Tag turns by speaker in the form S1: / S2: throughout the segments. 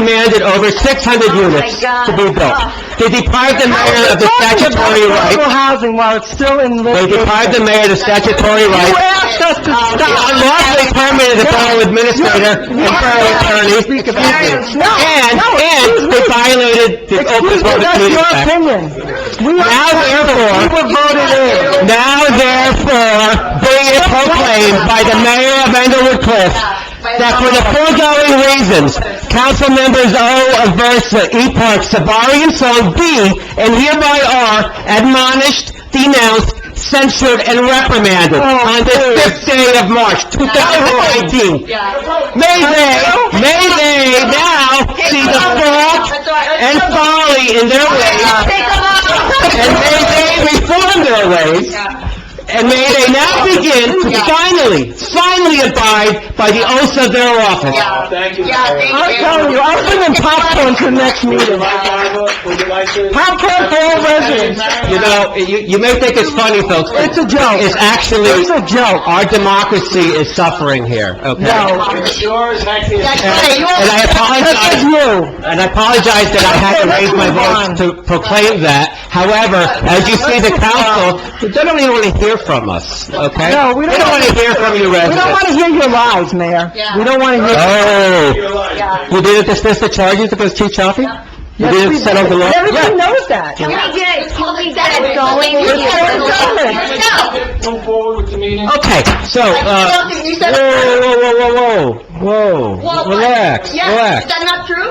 S1: demanded over 600
S2: Oh, my
S1: units
S2: God.
S1: to be built. They deprived the mayor of the
S3: Oh
S1: statutory
S3: Affordable
S1: right,
S3: housing while it's still in
S1: they
S3: litigation.
S1: deprived the mayor of the statutory
S3: You
S1: right,
S3: asked us to
S2: Um,
S1: They
S3: stop.
S1: unlawfully permitted the borough administrator and borough attorney, excuse me, and, and they violated the Open
S3: Excuse me,
S1: Public
S3: that's
S1: Meetings
S3: your
S1: Act.
S3: opinion. We are-
S1: Now
S3: we
S1: therefore,
S3: were voted in.
S1: now therefore, be it proclaimed by the mayor of Englewood Cliffs that for the foregoing reasons, council members O, Aversa, E. Park, Savari, and Sol be and hereby are admonished, denounced, censured, and reprimanded
S3: Oh,
S1: on the fifth day of March, 2019. May they, may they now see the fault and folly in their ways and may they reform their ways, and may they now begin to finally, finally abide by the oaths of their office.
S4: Thank you.
S2: Yeah, thank
S3: I'm telling you, I'm bringing popcorn to the next meeting.
S4: Would you like to?
S3: Popcorn for all residents.
S1: You know, you, you may think it's funny, folks, but...
S3: It's a joke.
S1: It's actually...
S3: It's a joke.
S1: Our democracy is suffering here, okay?
S3: No.
S4: It's yours, Hector.
S1: And I
S3: This
S1: apologize...
S3: is you.
S1: And I apologize that I had to raise my voice to proclaim that. However, as you see, the council, they don't even want to hear from us, okay?
S3: No, we don't-
S1: They don't want to hear from you
S3: We don't
S1: residents.
S3: want to hear your lies, Mayor.
S2: Yeah.
S3: We don't want to hear...
S1: Oh,
S4: Your life.
S2: Yeah.
S1: we didn't dismiss the charges against Chief Chaffee? We
S3: Yes,
S1: didn't
S3: we
S1: settle the
S3: did.
S1: law?
S3: Everybody
S1: Yeah.
S3: knows that.
S4: Move forward with the meeting.
S1: Okay, so, uh, whoa, whoa, whoa, whoa, whoa, whoa, relax,
S2: Yes, is
S1: relax.
S2: that not true?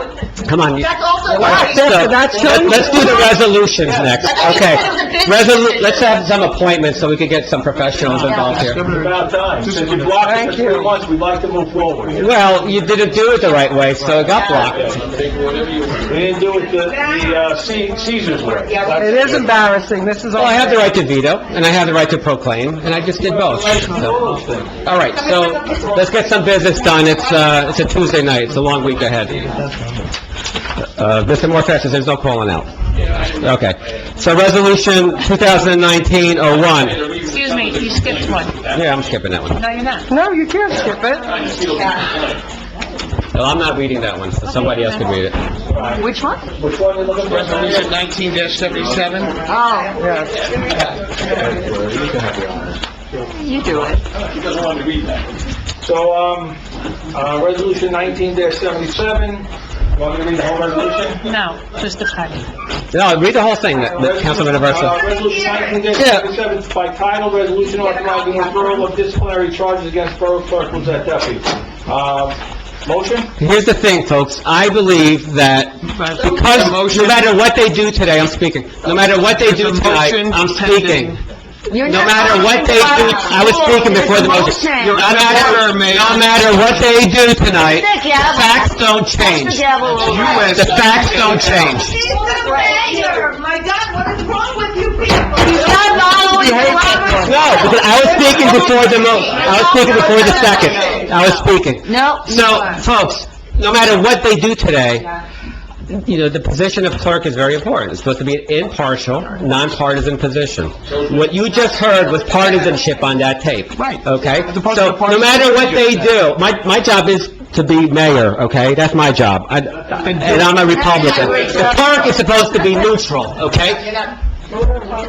S1: Come on, you-
S2: That's also...
S1: Relax. So,
S3: That's- that's-
S1: let- let's do the resolutions next,
S2: I thought you
S1: okay?
S2: said it was a business
S1: Resolu,
S2: decision.
S1: let's have some appointments so we can get some professionals involved here.
S4: It's about time. Since you blocked us for three months, we'd like to move forward. We
S1: Well, you didn't do it the right way, so it got blocked.
S4: didn't do it the, the uh, C- Caesar's way.
S3: It is embarrassing, this is all...
S1: Well, Oh, I have the right to veto, and I have the right to proclaim, and I just did both. So,
S4: All those things.
S1: All right, so, let's get some business done, it's, uh, it's a Tuesday night, it's a long week ahead. Uh, Mr. Morfett says there's no calling out. Okay, so resolution 2019-01,
S5: Excuse me, you skipped one.
S1: yeah, I'm skipping that one.
S5: No, you're not.
S3: No, you can't skip it.
S1: No, I'm not reading that one, so somebody else can read it.
S5: Which one?
S4: Resolution
S3: Oh, yes.
S5: You do it.
S4: He doesn't want to read that. So, um, uh, resolution nineteen seventy-seven, want me to read the whole resolution?
S5: No, just the title.
S1: No, read the whole thing, that- Councilman
S4: Uh,
S1: Aversa.
S4: Resolution nineteen seventy-seven, is by title, resolution authorizing referral of disciplinary charges against Borough Clerk Lizette Duffy. Um, motion?
S1: Here's the thing, folks, I believe that because, no matter what they do today, I'm speaking, no matter what they do tonight, I'm speaking. No matter what they do, I was speaking before the motion. No matter, no matter what they do tonight, the facts don't change. The facts don't change.
S6: She's the mayor! My God, what is wrong with you people?
S1: No, because I was speaking before the mo, I was speaking before the second. I was speaking.
S5: No.
S1: So, folks, no matter what they do today, you know, the position of clerk is very important. It's supposed to be an impartial, nonpartisan position. What you just heard was partisanship on that tape. Right. Okay? So, no matter what they do, my, my job is to be mayor, okay? That's my job. I- And I'm a Republican. The clerk is supposed to be neutral, okay?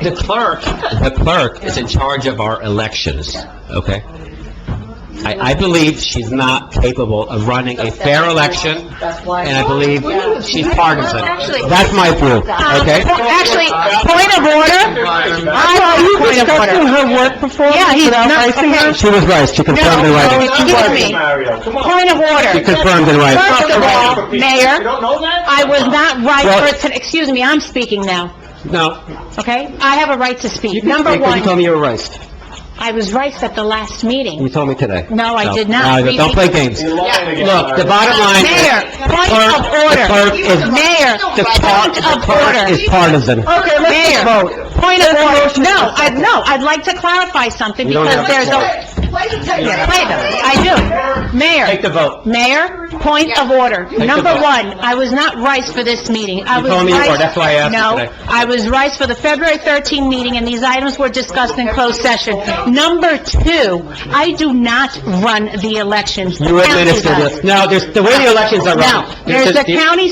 S1: The clerk, the clerk is in charge of our elections, okay? I, I believe she's not capable of running a fair election, and I believe she's partisan. That's my view, okay?
S7: Actually, point of order,
S3: Are you discussing her work performance?
S7: Yeah, he's
S3: without
S7: not-
S3: vice-
S7: okay,
S1: She was right, she confirmed in writing.
S7: excuse me,
S4: Mario, come on.
S7: point of
S1: She
S7: order.
S1: confirmed in writing.
S7: First of all,
S4: You
S7: Mayor,
S4: don't know that?
S7: I was not
S1: Well-
S7: right for, to- excuse me, I'm speaking now,
S1: No,
S7: okay? I have a right to speak. Number
S1: because you told
S7: one,
S1: me you were right.
S7: I was right at the last
S1: You
S7: meeting.
S1: told me today.
S7: No, I did not.
S1: No, Don't play games.
S4: You're lying again,
S1: Look, the
S4: Mario.
S1: bottom line is...
S7: Mayor, point of
S1: The clerk
S7: order.
S1: is...
S7: Mayor,
S1: The clerk,
S7: point
S1: the
S7: of
S1: clerk
S7: order.
S1: is partisan.
S3: Okay, let's just
S7: Mayor.
S3: vote.
S7: Point of order. No, I, no, I'd like to clarify something
S1: You don't
S7: because
S1: have
S7: there's
S1: to
S7: a,
S6: Wait a second.
S7: Wait a minute, I do. Mayor.
S1: Take the vote.
S7: Mayor, point of order.
S1: the
S7: Number
S1: vote.
S7: one, I was not rice for this meeting. I
S1: You
S7: was
S1: told me you were,
S7: rice-
S1: that's why I asked you today.
S7: No, I was rice for the February 13 meeting, and these items were discussed in closed session. Number two, I do not run the elections. The
S1: You
S7: county
S1: administer
S7: does.
S1: this. No, there's, the way the elections are run.
S7: No, uh, there's the
S1: just-
S7: county